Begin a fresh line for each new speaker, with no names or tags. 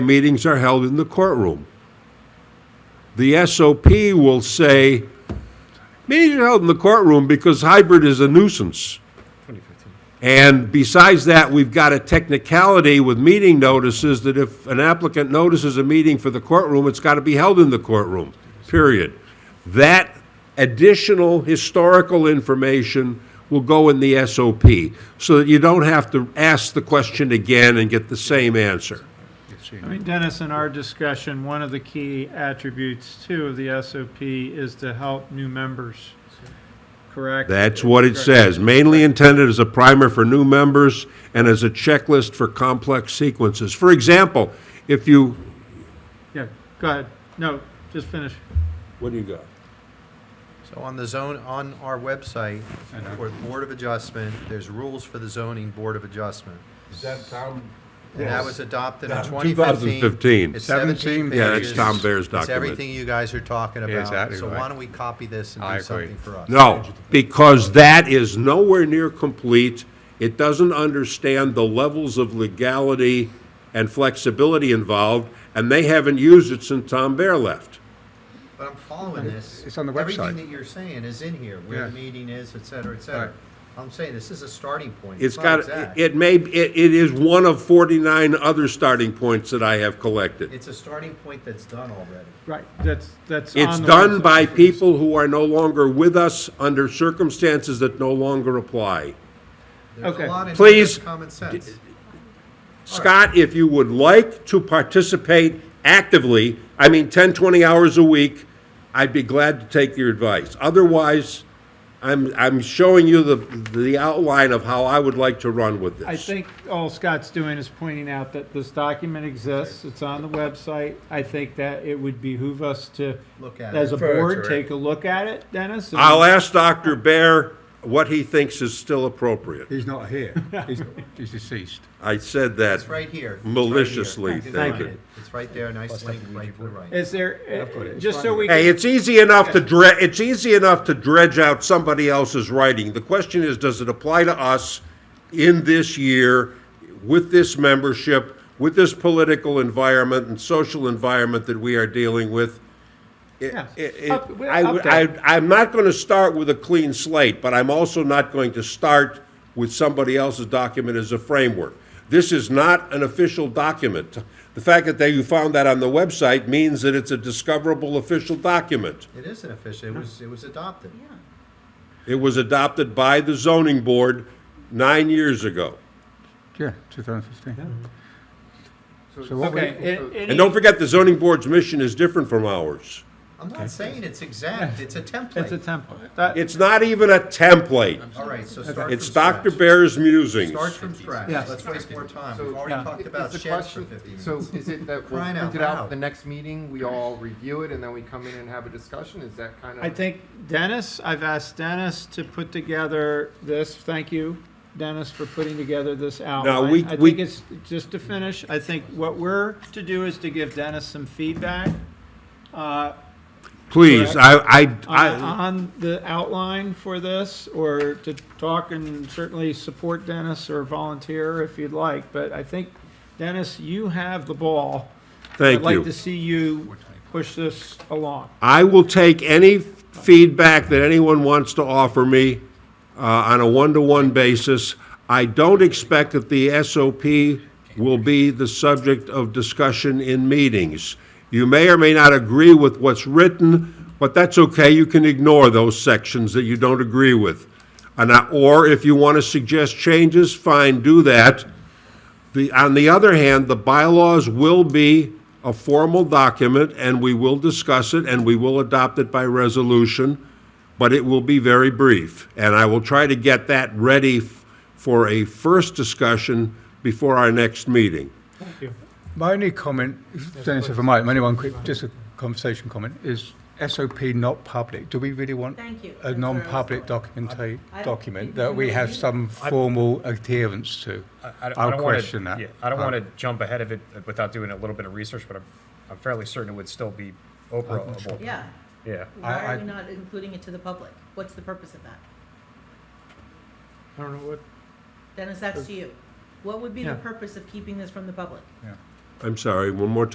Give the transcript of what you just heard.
meetings are held in the courtroom. The SOP will say, meetings are held in the courtroom because hybrid is a nuisance. And besides that, we've got a technicality with meeting notices that if an applicant notices a meeting for the courtroom, it's got to be held in the courtroom, period. That additional historical information will go in the SOP, so that you don't have to ask the question again and get the same answer.
I mean, Dennis, in our discussion, one of the key attributes too of the SOP is to help new members, correct?
That's what it says, mainly intended as a primer for new members and as a checklist for complex sequences. For example, if you,
Yeah, go ahead. No, just finish.
what do you got?
So on the zone, on our website, for Board of Adjustment, there's rules for the zoning Board of Adjustment.
Is that Tom?
And that was adopted in
Yeah,
2015.
2015.
It's 17
Yeah, that's
pages.
Tom Baer's
It's
document.
everything you guys are talking about.
exactly
So why
right.
don't we copy this and
I
do
agree.
something for us?
No, because that is nowhere near complete. It doesn't understand the levels of legality and flexibility involved, and they haven't used it since Tom Bear left.
But I'm following this.
it's on the
Everything
website.
that you're saying is in here, where the
Yeah.
meeting is, et cetera, et cetera.
Right.
I'm saying this is a starting point.
It's
not
got,
exact.
it may, it, it is one of 49 other starting points that I have collected.
It's a starting point that's done already.
Right, that's, that's.
It's
on the
done
website.
by people who are no longer with us under circumstances that no longer apply.
There's
Okay.
a lot in here
Please.
that's common sense.
Scott, if you would like to participate actively, I mean, 10, 20 hours a week, I'd be glad to take your advice. Otherwise, I'm, I'm showing you the, the outline of how I would like to run with this.
I think all Scott's doing is pointing out that this document exists, it's on the website. I think that it would behoove us to,
Look at it.
as a
Refer to
board,
it.
take a look at it, Dennis. and-
I'll ask Dr. Bear what he thinks is still appropriate.
He's not here. He's, he's deceased.
I said that
It's right here. It's right here.
maliciously,
It's
thank
right
you.
here. It's right there, nice link right to the right.
Is
got
there, uh,
it.
just so we.
Hey,
can-
it's easy enough to dredge, it's easy enough to dredge out somebody else's writing. The question is, does it apply to us in this year, with this membership, with this political environment and social environment that we are dealing with? It-
Yeah.
it- it-
Up- we're
I
up
would-
there.
I, I'm not going to start with a clean slate, but I'm also not going to start with somebody else's document as a framework. This is not an official document. The fact that they, you found that on the website means that it's a discoverable official document.
It is an official, it was, it was adopted.
It was adopted by the zoning board nine years ago.
Yeah, 2015. So what
Okay.
we,
a- any-
And don't forget, the zoning board's mission is different from ours.
I'm not saying it's exact, it's a
It's a
template.
template. That-
It's not even a template.
All right, so start from
It's Dr.
scratch.
Bear's musings.
Start from scratch,
Yes.
let's waste more time,
So-
we've
Yeah.
already talked about
Is the
sheds for
question-
fifty minutes.
So is it that we'll
Crying out
print it out
loud.
at the next meeting, we all review it, and then we come in and have a discussion? Is that kind of?
I think Dennis, I've asked Dennis to put together this, thank you, Dennis, for putting together this outline.
we-
I
we-
think it's, just to finish, I think what we're to do is to give Dennis some feedback uh,
Please, I, I,
on
I,
on the outline for this, or to talk and certainly support Dennis or volunteer if you'd like, but I think, Dennis, you have the ball.
thank you.
I'd like to see you push this along.
I will take any feedback that anyone wants to offer me uh, on a one-to-one basis. I don't expect that the SOP will be the subject of discussion in meetings. You may or may not agree with what's written, but that's okay. You can ignore those sections that you don't agree with. And I- Or if you want to suggest changes, fine, do that. The, on the other hand, the bylaws will be a formal document, and we will discuss it, and we will adopt it by resolution, but it will be very brief. And I will try to get that ready f- for a first discussion before our next meeting.
my only comment, if- Dennis, if I might, my only one quick, just a conversation comment, is SOP not public? Do we really want
Thank you.
a
That's where I was
non-public
going.
documenta-
I-
document
you-
that
you
we
know,
have
you-
some formal adherence to?
I don't- I
I'll
don't wanna-
question that. Uh,
yeah, I don't want to jump ahead of it without doing a little bit of research, but I'm, I'm fairly certain it would still be operable.
Yeah,
Yeah.
why
I-
are we not including it to the public? What's the purpose of that?
I don't know what.
Dennis, that's to you. What would be the
Yeah.
purpose of keeping this from the public?
I'm sorry, one more time.